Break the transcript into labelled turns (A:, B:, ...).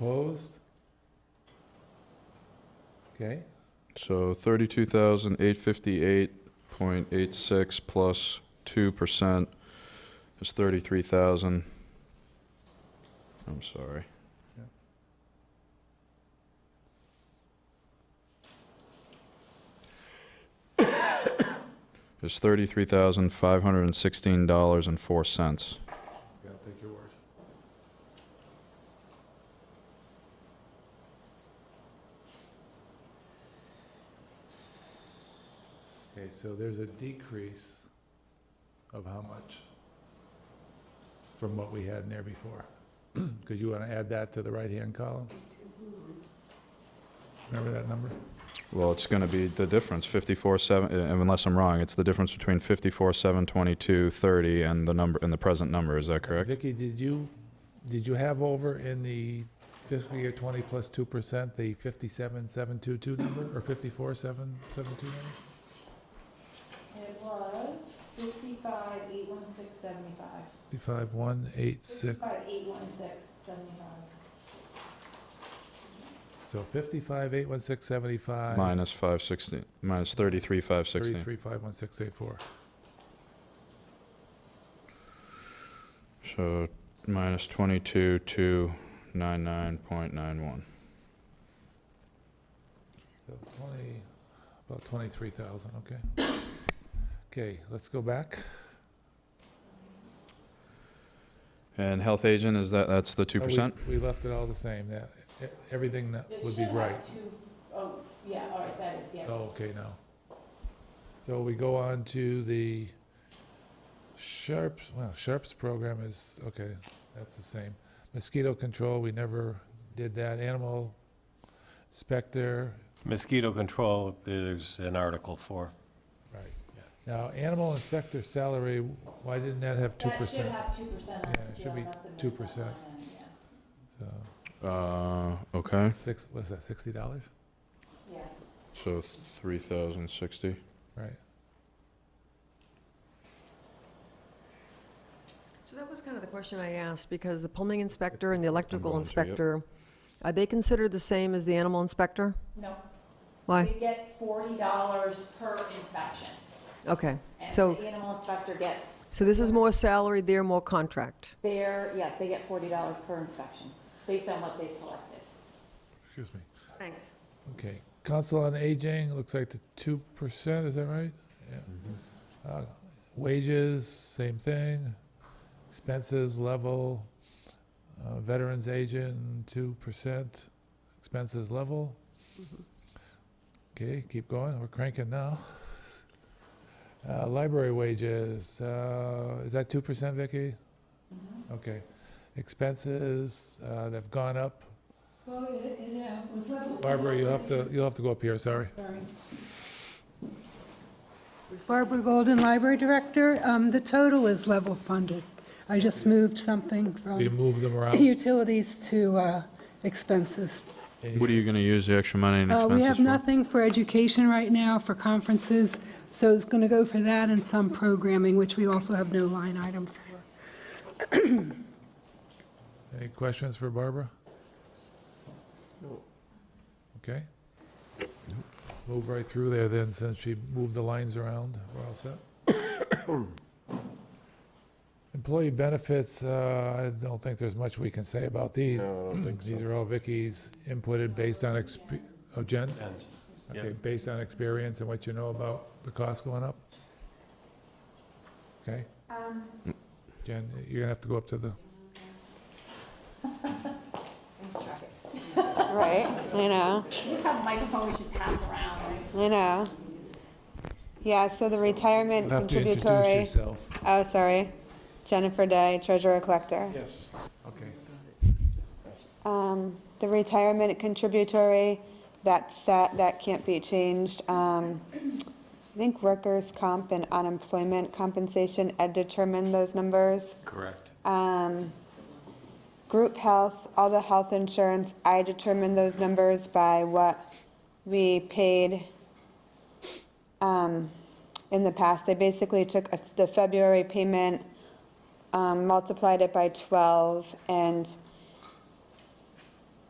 A: Opposed? Okay,
B: So thirty-two thousand eight fifty-eight point eight six plus two percent is thirty-three thousand. I'm sorry. It's thirty-three thousand five hundred and sixteen dollars and four cents.
A: yeah, I'll take your word. Okay, so there's a decrease of how much from what we had in there before? Because you want to add that to the right-hand column? Remember that number?
B: Well, it's gonna be the difference, fifty-four seven, uh, unless I'm wrong, it's the difference between fifty-four seven twenty-two thirty and the number, and the present number, is that correct?
A: Vicki, did you, did you have over in the fiscal year twenty plus two percent, the fifty-seven, seven, two, two number, or fifty-four, seven, seven, two number?
C: It was fifty-five, eight, one, six, seventy-five.
A: Fifty-five, one, eight, six,
C: Fifty-five, eight, one, six, seventy-five.
A: so fifty-five, eight, one, six, seventy-five.
B: Minus five sixteen, minus thirty-three, five sixteen.
A: Thirty-three, five, one, six, eight, four.
B: So minus twenty-two, two, nine, nine point nine one.
A: So twenty, about twenty-three thousand, okay. Okay, let's go back.
B: And health agent, is that, that's the two
A: Oh, we-
B: percent?
A: We left it all the same, that, e- everything that
C: It
A: would be
C: should have
A: right.
C: two- Oh, yeah, all right, that is, yeah.
A: Oh, okay, now. So we go on to the Sharps, well, Sharps program is, okay, that's the same. Mosquito control, we never did that. Animal inspector,
D: Mosquito control, there's an article for.
A: right. Now, animal inspector salary, why didn't that have two
C: That should
A: percent?
C: have two percent on
A: Yeah, it
C: it,
A: should
C: too. I
A: be
C: must have missed
A: 2%.
C: that line item,
A: So,
B: Uh, okay,
A: six, what's that, sixty dollars?
C: Yeah, Yeah.
B: so three thousand sixty.
A: Right.
E: So that was kind of the question I asked, because the plumbing inspector and the electrical
B: going to, yep.
E: inspector, are they considered the same as the animal inspector?
C: no.
E: Why?
C: They get forty dollars per inspection.
E: Okay,
C: And
E: so,
C: the animal inspector gets
E: so this is more salary, they're more contract.
C: their, yes, they get forty dollars per inspection, based on what they've collected.
A: Excuse me.
E: Thanks.
A: Okay, Council on Aging, looks like the two percent, is that right? Yeah. Uh, Wages, same thing. Expenses level, uh, veterans agent, two percent, expenses level.
C: Mm-hmm.
A: Okay, keep going, we're cranking now. Uh, Library wages, uh, is that two percent, Vicky?
C: Mm-hmm.
A: Okay. Expenses, uh, they've gone up.
C: Well, yeah,
A: Barbara, you'll have to, you'll have to go up here, sorry.
F: Barbara Golden, Library Director. Um, The total is level funded. I just moved something
A: So you
F: from
A: move them around.
F: utilities to uh, expenses.
A: and
B: What are you gonna use the extra money and
F: Uh, We
B: expenses
F: have
B: for?
F: nothing for education right now, for conferences, so it's going to go for that and some programming, which we also have no line item for.
A: Any questions for Barbara? No. Okay. Move right through there then, since she moved the lines around. We're all set. Employee benefits, uh, I don't think there's much we can say about these. No, I don't think so. These are all Vicky's inputted based on exp, oh, Jen's? Okay, based on experience and what you know about the cost going up? Okay? Jen, you're gonna have to go up to the,
G: Right, I know,
C: Just have a microphone we should pass around, right?
G: I know. Yeah, so the retirement
A: you'll have to introduce
G: contributory,
A: yourself.
G: oh, sorry, Jennifer Day, treasurer collector.
A: Okay,
G: Um, the retirement contributory, that's set, that can't be changed. Um, I think workers' comp and unemployment compensation, Ed determined those numbers.
D: Correct.
G: Um, group health, all the health insurance, I determined those numbers by what we paid um, in the past. I basically took a- the February payment, um, multiplied it by 12, and